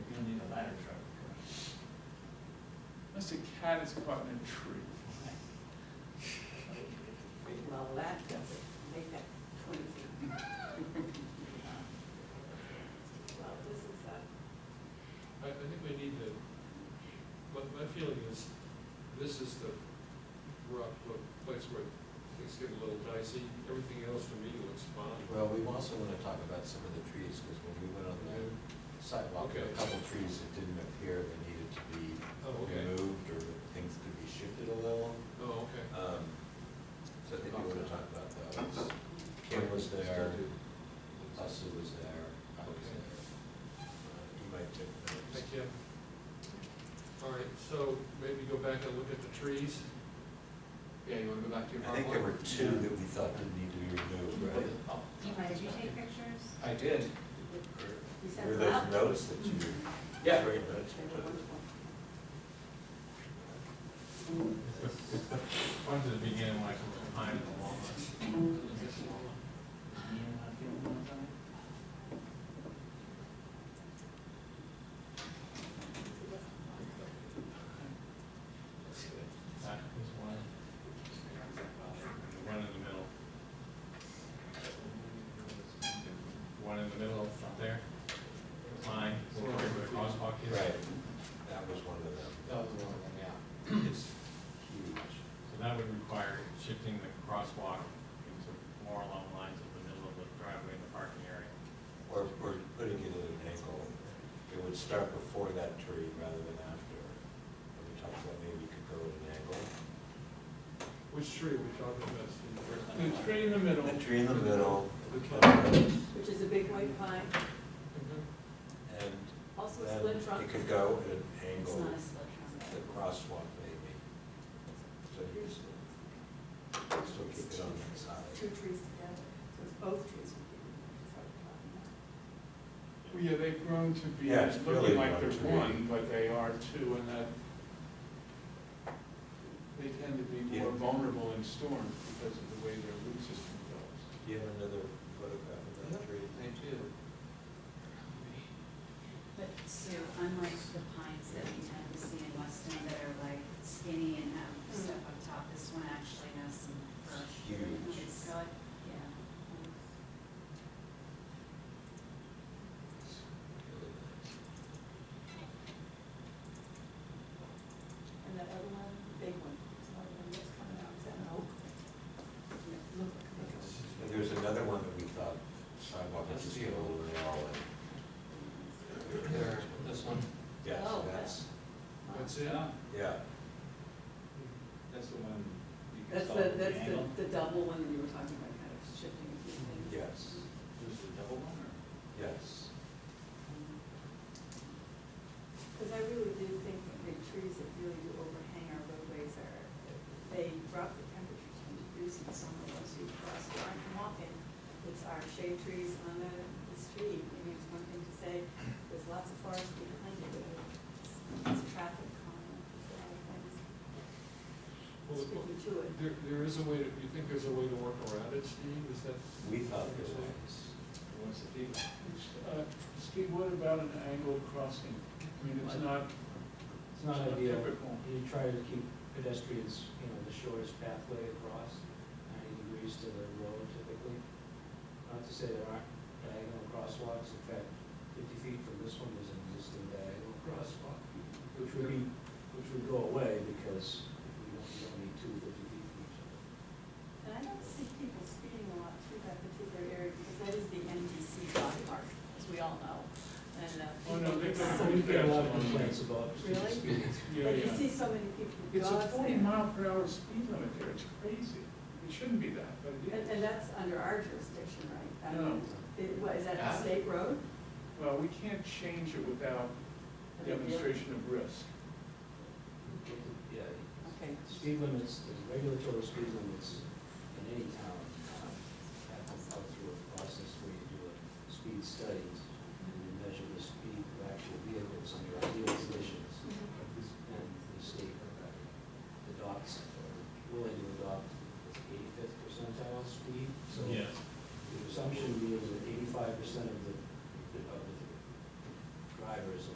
unless a cat is caught in a tree. Well, that doesn't make that twenty feet. Well, this is uh, a, I, I think we need to, my, my feeling is, this is the rock, the place where things get a little dicey, everything else to me looks fine. Well, we also want to talk about some of the trees, because when we went on the sidewalk, there were a couple of trees that didn't appear that needed to be Oh, okay. removed, or things could be shifted a little. Oh, okay. Um, So I think we want to talk about those. Kim was there, Hussey was there, I was Okay. there. Uh, You might take notes. Thank you. All right, so maybe go back and look at the trees. Yeah, you wanna go back to your I think PowerPoint? there were two that we thought didn't need to be removed, right? Did you take pictures? I did. you said Were that? those notes that you? Yeah. Great notes. They were wonderful. One to the beginning, like a pine and a walnut. That was one. One in the middle. One in the middle up there. The Pine, where the crosswalk is. Right, that was one of them, That was one of them, yeah. it's huge. So that would require shifting the crosswalk into more along the lines of the middle of the driveway and the parking area. Or, or putting it at an angle, it would start before that tree rather than after. And we talked about maybe you could go at an angle. Which tree are we talking about, Steve? The tree in the middle, A tree in the middle, Which is a big white pine, Mhm. and also a then split trunk. it could go at an It's angle, not a split trunk. the crosswalk maybe. So you just, still keep it on that Two side. trees together, so it's both trees would be. is what we're talking about. Well, yeah, they've grown to be, Yeah, it's really looking like grown they're to be. one, but they are two, and that they tend to be more Yeah. vulnerable in storms because of the way their root system develops. Do you have another photograph of that tree? They do. But Sue, unlike the pines that we tend to see in Weston that are like skinny and have stuff up top, this one actually has some curve. Huge. It's, yeah. And that other one, the big one, is one of them that's coming out, is that an oak? Yeah, Look, look. And there was another one that we thought sidewalk was just getting a little narrow and, There, this one. yeah, Oh, okay. so that's, That's it? yeah. That's the one. That's the, that's the, the double one that you were talking about, kind of shifting a few things. Yes, yes. Because I really do think that the trees that really do overhang our roadways are, they drop the temperature ten degrees in summer once you cross the line from walking. It's our shade trees on the, the street, I mean, it's one thing to say, there's lots of forest behind it, but it's, it's traffic calming, it's a lot of things. Well, It's tricky to it. There, there is a way, to you think there's a way to work around it, Steve, is that? We thought there was. Uh, Steve, what about an angled crossing? I mean, it's not, It's not It's not ideal. typical. You try to keep pedestrians, you know, the shortest pathway across, ninety degrees to the road typically. Not to say there aren't diagonal crosswalks, in fact, fifty feet from this one is an existing diagonal crosswalk, which would be, which would go away because we don't, we don't need two fifty feet from each other. And I don't see people speeding a lot through that particular area, because that is the MDC dog park, as we all know, and, uh. Oh, no, they people- don't So we get a lot of complaints about. Really? speeding. yeah, But you yeah. see so many people with It's a dogs forty there. mile per hour speed limit there, it's crazy. It shouldn't be that, but it And, is. and that's under our jurisdiction, right? That- No. It, what, is that a state road? Well, we can't change it without demonstration of risk. Yeah, Okay. Speed limits, the regulatory speed limits uh, in any town um, have to go through a process where you do a speed study to Mm-hmm.